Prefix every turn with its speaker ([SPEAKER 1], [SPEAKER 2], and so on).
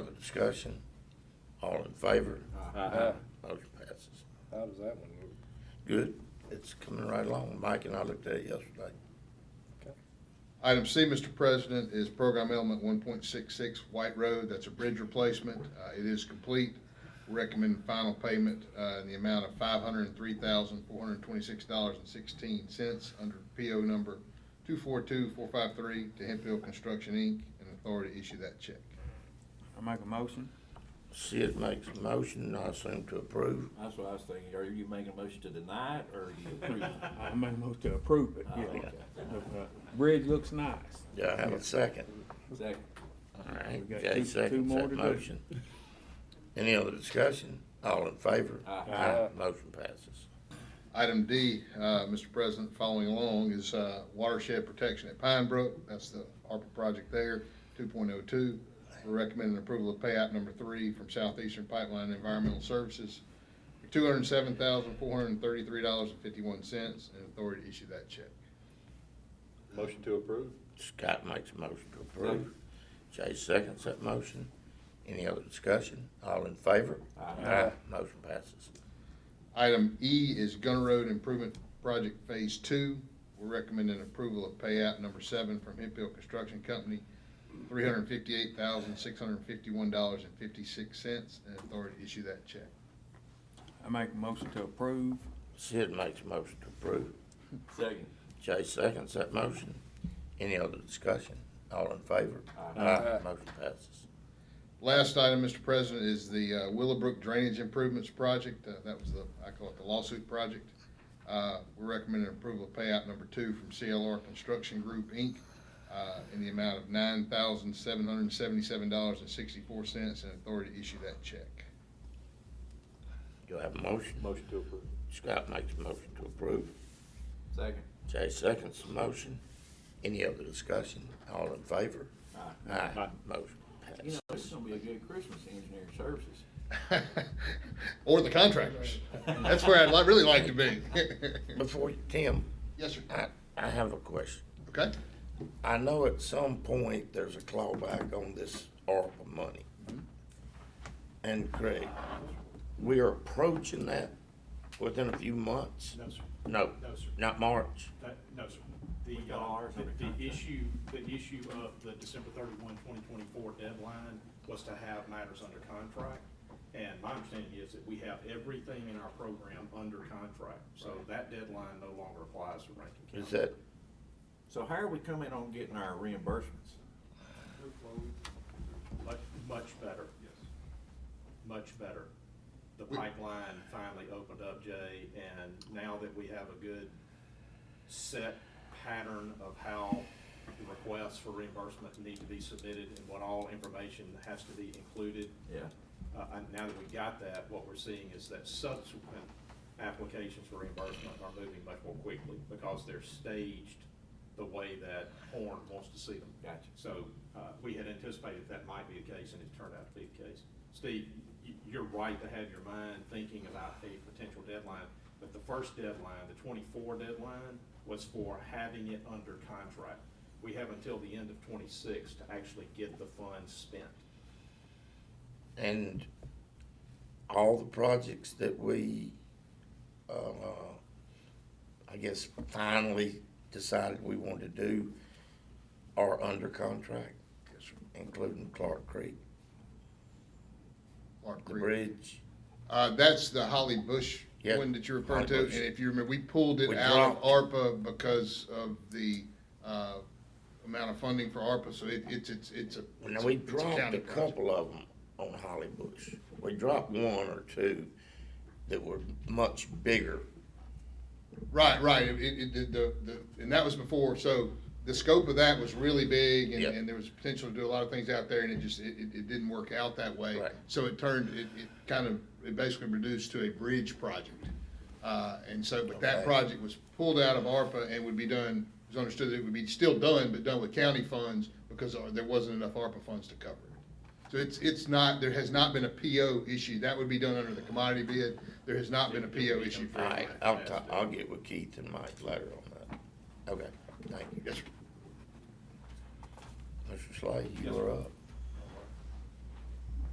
[SPEAKER 1] Other discussion? All in favor?
[SPEAKER 2] Uh-huh.
[SPEAKER 3] Uh,
[SPEAKER 1] Motion passes.
[SPEAKER 4] How does that one move?
[SPEAKER 1] Good. It's coming right along. Mike and I looked at it yesterday.
[SPEAKER 5] Item C, Mr. President, is program element one point six six White Road. That's a bridge replacement. Uh, it is complete. Recommend final payment, uh, in the amount of five hundred and three thousand, four hundred and twenty-six dollars and sixteen cents under PO number two four two four five three to Hempfield Construction, Inc., and authority to issue that check.
[SPEAKER 3] I make a motion?
[SPEAKER 1] Sid makes a motion, I assume to approve.
[SPEAKER 2] That's what I was thinking. Are you making a motion to deny it or are you approve? it?
[SPEAKER 3] I make a motion to approve it,
[SPEAKER 2] Oh,
[SPEAKER 3] yeah.
[SPEAKER 2] okay.
[SPEAKER 3] Uh, Bridge looks nice.
[SPEAKER 1] Do I have a second?
[SPEAKER 2] Second.
[SPEAKER 1] All right,
[SPEAKER 3] We got
[SPEAKER 1] Jay
[SPEAKER 3] two- two
[SPEAKER 1] seconds
[SPEAKER 3] more
[SPEAKER 1] that
[SPEAKER 3] to do.
[SPEAKER 1] motion. Any other discussion? All in favor?
[SPEAKER 2] Aye.
[SPEAKER 1] Motion passes.
[SPEAKER 5] Item D, uh, Mr. President, following along is uh, watershed protection at Pine Brook. That's the ARPA project there, 2.02. We're recommending approval of payout number three from Southeastern Pipeline Environmental Services for $207,433.51 and authority to issue that check.
[SPEAKER 4] Motion to approve?
[SPEAKER 1] Scott makes a motion to approve. Jay seconds that motion. Any other discussion? All in favor? Aye. Motion passes.
[SPEAKER 5] Item E is Gunner Road Improvement Project Phase Two. We're recommending approval of payout number seven from Hempfield Construction Company, three hundred and fifty-eight thousand, six hundred and fifty-one dollars and fifty-six cents, and authority to issue that check.
[SPEAKER 3] I make a motion to approve.
[SPEAKER 1] Sid makes a motion to approve.
[SPEAKER 2] Second.
[SPEAKER 1] Jay seconds that motion. Any other discussion? All in favor?
[SPEAKER 2] Aye.
[SPEAKER 1] Motion passes.
[SPEAKER 5] Last item, Mr. President, is the uh, Willowbrook Drainage Improvements Project. Uh, That was the, I call it the lawsuit project. Uh, We're recommending approval of payout number two from CLR Construction Group, Inc., uh, in the amount of nine thousand, seven hundred and seventy-seven dollars and sixty-four cents, and authority to issue that check.
[SPEAKER 1] Do I have a motion?
[SPEAKER 4] Motion to approve.
[SPEAKER 1] Scott makes a motion to approve.
[SPEAKER 2] Second.
[SPEAKER 1] Jay seconds the motion. Any other discussion? All in favor?
[SPEAKER 2] Aye.
[SPEAKER 1] Aye. Motion
[SPEAKER 2] You know,
[SPEAKER 1] passes.
[SPEAKER 2] this is gonna be a good Christmas engineering services.
[SPEAKER 5] Or the contractors. That's where I'd li- really like to be.
[SPEAKER 1] Before, you- Tim,
[SPEAKER 5] Yes, sir.
[SPEAKER 1] I, I have a question.
[SPEAKER 5] Okay.
[SPEAKER 1] I know at some point there's a clawback on this ARPA money. And Craig, we are approaching that within a few months?
[SPEAKER 6] No, sir.
[SPEAKER 1] No,
[SPEAKER 6] No, sir.
[SPEAKER 1] not March.
[SPEAKER 6] That- No, sir. The,
[SPEAKER 2] We've got
[SPEAKER 6] uh,
[SPEAKER 2] ours under
[SPEAKER 6] the-
[SPEAKER 2] contract.
[SPEAKER 6] the issue, the issue of the December 31, 2024 deadline was to have matters under contract. And my understanding is that we have everything in our program under contract. So that deadline no longer applies to Rankin County.
[SPEAKER 1] Is that,
[SPEAKER 2] So how are we coming on getting our reimbursements?
[SPEAKER 6] Much, much better. Yes. Much better. The pipeline finally opened up, Jay, and now that we have a good set pattern of how the requests for reimbursement need to be submitted and what all information has to be included.
[SPEAKER 2] Yeah.
[SPEAKER 6] Uh, and now that we got that, what we're seeing is that subsequent applications for reimbursement are moving much more quickly because they're staged the way that Horn wants to see them.
[SPEAKER 2] Gotcha.
[SPEAKER 6] So, uh, we had anticipated that might be the case, and it turned out to be the case. Steve, y- you're right to have your mind thinking about a potential deadline, but the first deadline, the twenty-four deadline, was for having it under contract. We have until the end of twenty-six to actually get the funds spent.
[SPEAKER 1] and all the projects that we, uh, I guess finally decided we wanted to do are under contract, including Clark Creek,
[SPEAKER 5] Clark
[SPEAKER 1] the
[SPEAKER 5] Creek.
[SPEAKER 1] bridge.
[SPEAKER 5] Uh, that's the Holly Bush
[SPEAKER 1] Yeah,
[SPEAKER 5] one that you referred to,
[SPEAKER 1] Holly
[SPEAKER 5] and
[SPEAKER 1] Bush.
[SPEAKER 5] if you remember, we pulled it
[SPEAKER 1] We
[SPEAKER 5] out of ARPA because of the, uh, amount of funding for ARPA, so it, it's, it's, it's a.
[SPEAKER 1] Now, we
[SPEAKER 5] it's a
[SPEAKER 1] dropped
[SPEAKER 5] county
[SPEAKER 1] a
[SPEAKER 5] project.
[SPEAKER 1] couple of them on Holly Bush. We dropped one or two that were much bigger.
[SPEAKER 5] Right, right, it, it, it- the, the, and that was before, so the scope of that was really big, and,
[SPEAKER 1] Yeah.
[SPEAKER 5] and there was potential to do a lot of things out there, and it just, it, it, it didn't work out that way.
[SPEAKER 1] Right.
[SPEAKER 5] So it turned, it, it kind of, it basically reduced to a bridge project. Uh, and so, but that
[SPEAKER 1] Okay.
[SPEAKER 5] project was pulled out of ARPA and would be done, it was understood that it would be still done, but done with county funds, because there wasn't enough ARPA funds to cover it. So it's, it's not, there has not been a PO issue, that would be done under the commodity bid, there has not been a PO issue for
[SPEAKER 1] All right,
[SPEAKER 5] it.
[SPEAKER 1] I'll, ta- I'll get with Keith and Mike later on that. Okay, thank you.
[SPEAKER 5] Yes, sir.
[SPEAKER 1] Mr. Slade, you're up.